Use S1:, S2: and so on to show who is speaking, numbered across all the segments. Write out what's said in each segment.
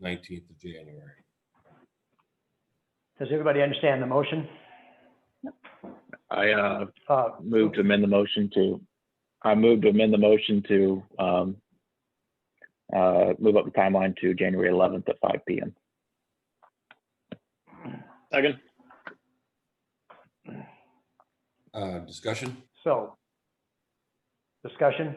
S1: nineteenth of January.
S2: Does everybody understand the motion?
S3: I uh,
S2: Uh,
S3: move to amend the motion to, I move to amend the motion to um, uh, move up the timeline to January 11th at 5 PM.
S4: Second.
S1: Uh, discussion?
S2: So, discussion?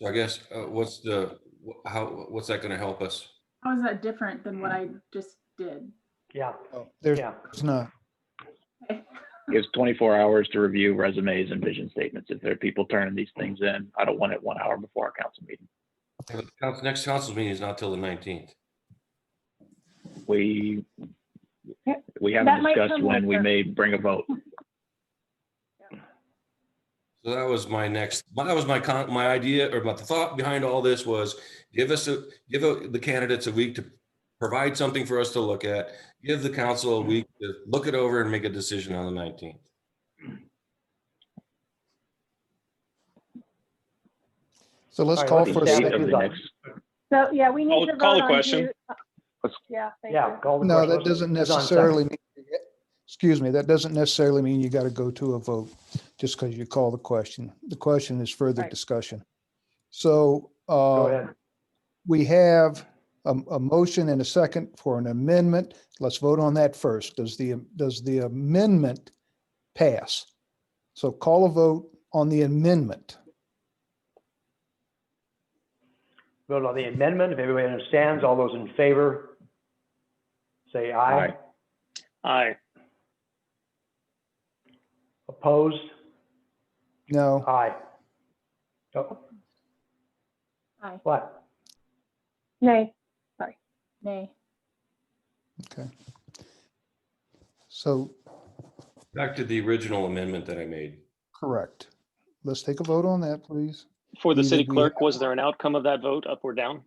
S1: So I guess, uh, what's the, wh- how, what's that gonna help us?
S5: How is that different than what I just did?
S2: Yeah,
S6: Oh, There's
S2: yeah.
S6: there's not.
S3: Gives 24 hours to review resumes and vision statements. If there are people turning these things in, I don't want it one hour before our council meeting.
S1: The council- Next council meeting is not till the nineteenth.
S3: We,
S7: Yeah,
S3: we
S7: that
S3: haven't
S7: might
S3: discussed
S7: come
S3: when we
S7: later.
S3: may bring a vote.
S1: So that was my next, my- that was my con, my idea or my thought behind all this was give us a, give uh, the candidates a week to provide something for us to look at, give the council a week to look it over and make a decision on the nineteenth.
S6: So let's
S2: All right,
S6: call
S2: let's
S6: for a
S2: do that.
S3: Date of
S6: second.
S3: the
S2: Second.
S3: next-
S7: So, yeah, we
S4: Call-
S7: need to
S4: call the
S7: vote on
S4: question.
S7: who. uh,
S3: Let's-
S7: Yeah, thank
S2: Yeah,
S7: you.
S2: call the
S6: No,
S2: question.
S6: that doesn't
S2: It's on second.
S6: necessarily, mean excuse me, that doesn't necessarily mean you got to go to a vote just because you call the question. The question is further
S7: Right.
S6: discussion. So
S2: Go
S6: uh,
S2: ahead.
S6: we have a, a motion and a second for an amendment. Let's vote on that first. Does the, does the amendment pass? So call a vote on the amendment.
S2: Vote on the amendment. If everybody understands, all those in favor, say aye.
S3: Aye.
S4: Aye.
S2: Opposed?
S6: No,
S2: Aye. Oh,
S5: Aye,
S2: What?
S7: Nay,
S5: nay.
S6: so
S1: Back to the original amendment that I made.
S6: correct. Let's take a vote on that, please.
S4: For the
S6: You
S4: city
S6: didn't-
S4: clerk, was there an outcome of that vote, up or down?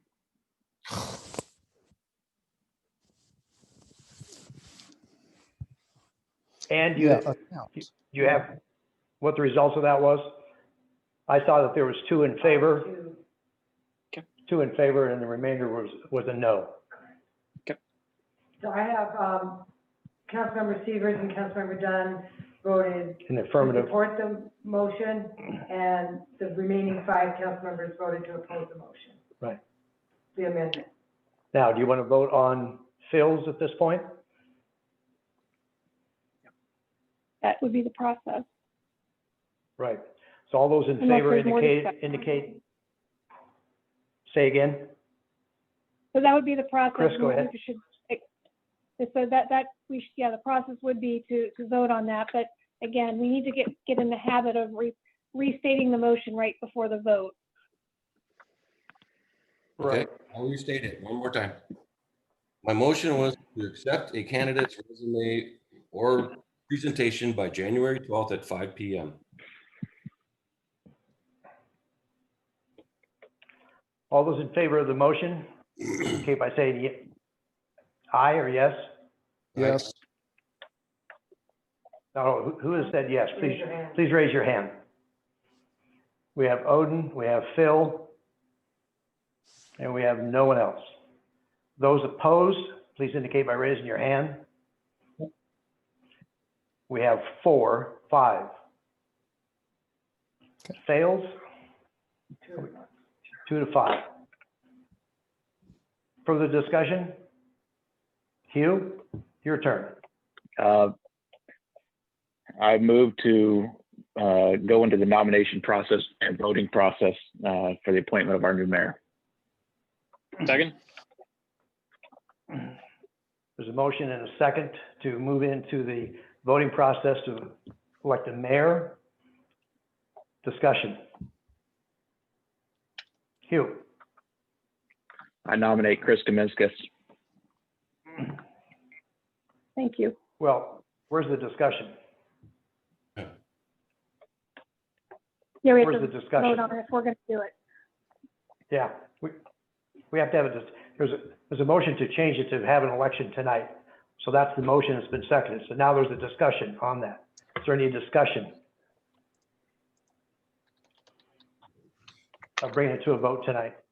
S2: And you,
S6: Yeah, account.
S2: you have, what the results of that was? I saw that there was two in favor.
S4: Okay.
S2: Two in favor and the remainder was, was a no.
S8: So I have, um, Councilmember Severs and Councilmember Dunn voted
S2: An
S8: to
S2: affirmative.
S8: support the motion, and the remaining five council members voted to oppose the motion.
S2: Right.
S8: The amendment.
S2: Now, do you want to vote on Phil's at this point?
S7: that would be the process.
S2: Right. So all those in
S7: unless
S2: favor
S7: there's more
S2: indicate,
S7: discussion.
S2: indicate, say again?
S7: So that would be the process.
S2: Chris, go
S7: we-
S2: ahead.
S7: we should- eh, So that, that, we, should- yeah, the process would be to, to vote on that, but again, we need to get, get in the habit of re- restating the motion right before the vote.
S1: Okay, I'll restate it one more time. My motion was to accept a candidate's resume or presentation by January twelfth at five P M.
S2: All those in favor of the motion, indicate by saying ye- aye or yes?
S6: Yes,
S2: No, who- who has said yes?
S8: Raise
S2: Please,
S8: your hand.
S2: please raise your hand. We have Odin, we have Phil, and we have no one else. Those opposed, please indicate by raising your hand. We have four, five. Fails,
S8: Two.
S2: two to five. Further discussion? Hugh, your turn.
S3: Uh, I move to uh, go into the nomination process and voting process uh, for the appointment of our new mayor.
S4: Second.
S2: There's a motion and a second to move into the voting process to elect a mayor. Discussion. Hugh,
S3: I nominate Chris Kaminskis.
S7: Thank you.
S2: well, where's the discussion?
S7: Yeah, we have
S2: Where's the
S7: to vote
S2: discussion?
S7: on it if we're gonna do it.
S2: Yeah, we, we have to have a, dis- there's a, there's a motion to change it to have an election tonight. So that's the motion that's been seconded. So now there's a discussion on that. Is there any discussion? I'll bring it to a vote tonight.